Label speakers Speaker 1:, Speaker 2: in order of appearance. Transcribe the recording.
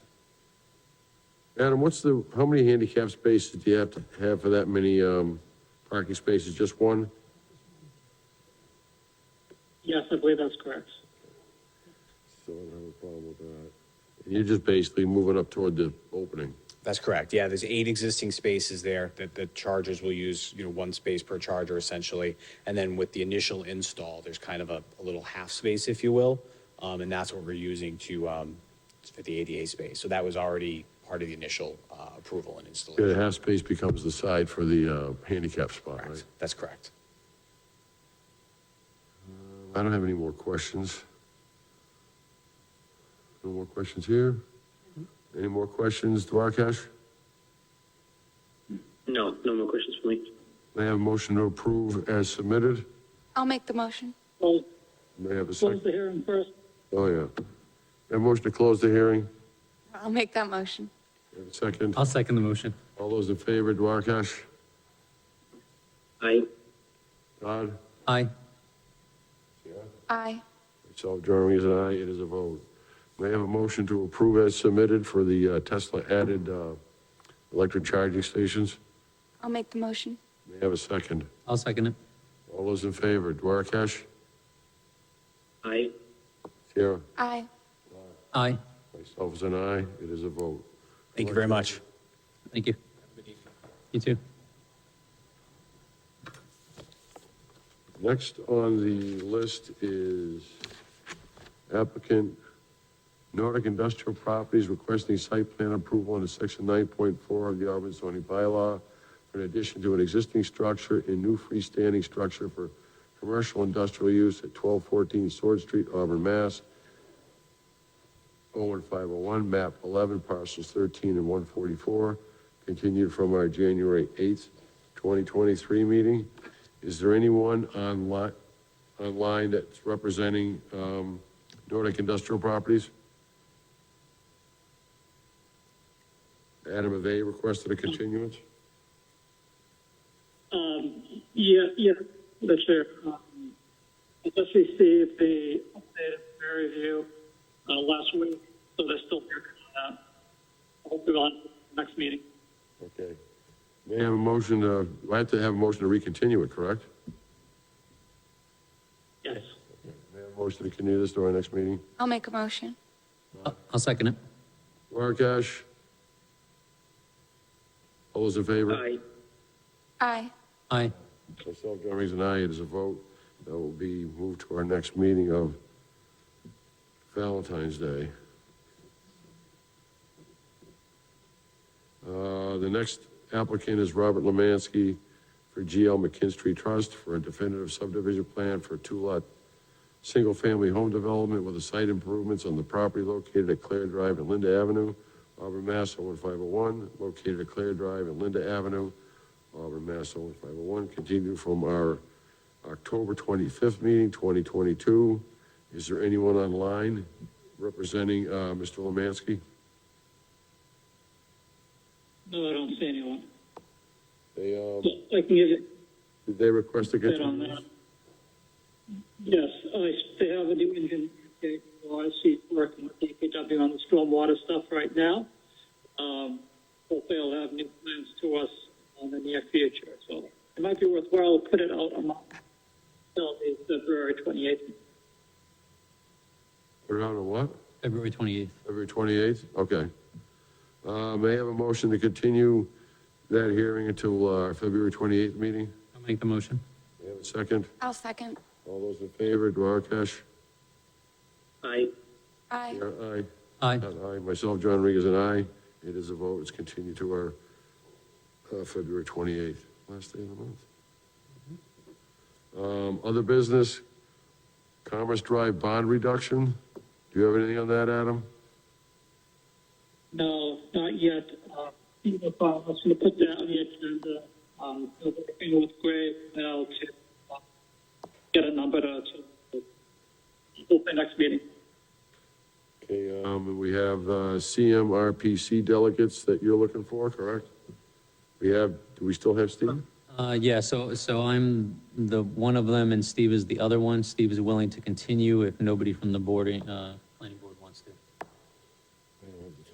Speaker 1: Adam, what's the, how many handicap spaces do you have to have for that many, um, parking spaces? Just one?
Speaker 2: Yes, I believe that's correct.
Speaker 1: So I don't have a problem with that. And you're just basically moving up toward the opening.
Speaker 3: That's correct. Yeah, there's eight existing spaces there that the chargers will use, you know, one space per charger essentially. And then with the initial install, there's kind of a, a little half space, if you will. Um, and that's what we're using to, um, for the ADA space. So that was already part of the initial, uh, approval and
Speaker 1: The
Speaker 3: installation.
Speaker 1: half space becomes the side for the, uh, handicap spot, right?
Speaker 3: Correct. That's correct.
Speaker 1: I don't have any more questions. No more questions here? Any more questions, Duarkesh?
Speaker 2: No, no more questions for me.
Speaker 1: May I have a motion to approve as submitted?
Speaker 4: I'll make the motion.
Speaker 2: Close,
Speaker 1: May I have a
Speaker 2: close
Speaker 1: second?
Speaker 2: the hearing first.
Speaker 1: Oh, yeah. May I have a motion to close the hearing?
Speaker 4: I'll make that motion.
Speaker 1: May I have a Second.
Speaker 5: I'll second the motion.
Speaker 1: All those in favor, Duarkesh?
Speaker 2: Aye.
Speaker 1: Todd?
Speaker 5: Aye.
Speaker 4: Aye.
Speaker 1: Myself, Jeremy is an aye. It is a vote. May I have a motion to approve as submitted for the uh, Tesla added uh, electric charging stations?
Speaker 4: I'll make the motion.
Speaker 1: May I have a second?
Speaker 5: I'll second it.
Speaker 1: All those in favor, Duarkesh?
Speaker 2: Aye.
Speaker 1: Sierra?
Speaker 4: Aye.
Speaker 5: Aye.
Speaker 1: Myself is an aye, it is a vote.
Speaker 3: Thank you very much.
Speaker 5: Thank you. You too.
Speaker 1: Next on the list is applicant Nordic Industrial Properties requesting site plan approval under section 9.4 of the Auburn zoning bylaw for an addition to an existing structure and new freestanding structure for commercial industrial use at 1214 Sword Street, Auburn, Mass. 01501, map 11, parcels 13 and 144, continued from our January 8th, 2023 meeting. Is there anyone online, online that's representing um, Nordic Industrial Properties? Adam Ave requested a continuance?
Speaker 2: Um, yeah, yeah, the chair. Um, I just received the updated peer review uh, last week, so they're still working on that. Hopefully, on next meeting.
Speaker 1: Okay. May I have a motion to, I have to have a motion to recontinue it, correct?
Speaker 2: Yes.
Speaker 1: May I have a motion to continue this to our next meeting?
Speaker 4: I'll make a motion.
Speaker 5: I'll- I'll second it.
Speaker 1: Markash? All those in favor?
Speaker 2: Aye.
Speaker 4: Aye.
Speaker 5: Aye.
Speaker 1: Myself, John Reagan, and I, it is a vote that will be moved to our next meeting of Valentine's Day. Uh, The next applicant is Robert Lemansky for GL McKinstry Trust for a definitive subdivision plan for two-lot, single-family home development with the site improvements on the property located at Claire Drive and Linda Avenue, Auburn, Mass. 01501, located at Claire Drive and Linda Avenue, Auburn, Mass. 01501, continued from our October 25th meeting, 2022. Is there anyone online representing uh, Mr. Lemansky?
Speaker 2: No, I don't see anyone.
Speaker 1: They, um,
Speaker 2: I can give you
Speaker 1: did they request a
Speaker 2: Bit on that.
Speaker 1: continuance?
Speaker 2: Yes, I, they have a new engine, okay, well, I see working with DPW on the stormwater stuff right now. Um, hopefully they'll have new plans to us in the near future, so it might be worthwhile to put it out on, till the February twenty-eighth.
Speaker 1: Put it on a what?
Speaker 5: February 28th.
Speaker 1: February 28th? Okay. Uh, May I have a motion to continue that hearing until uh, our February 28th meeting?
Speaker 5: I'll make the motion.
Speaker 1: May I have a second?
Speaker 4: I'll second.
Speaker 1: All those in favor, Duarkesh?
Speaker 2: Aye.
Speaker 4: Aye.
Speaker 1: Yeah, Aye.
Speaker 5: Aye.
Speaker 1: Not Aye, myself, John Regan, is an aye. It is a vote, it's continued to our uh, February 28th, last day of the month. Um, Other business, Commerce Drive bond reduction. Do you have anything on that, Adam?
Speaker 2: No, not yet. Uh, you know, I was gonna put that on the agenda, um, so working with Greg now to uh, get a number to, to open next meeting.
Speaker 1: Okay, um, we have uh, CMRPC delegates that you're looking for, correct? We have, do we still have Steve?
Speaker 5: Uh, yeah, so, so I'm the one of them and Steve is the other one. Steve is willing to continue if nobody from the board, uh,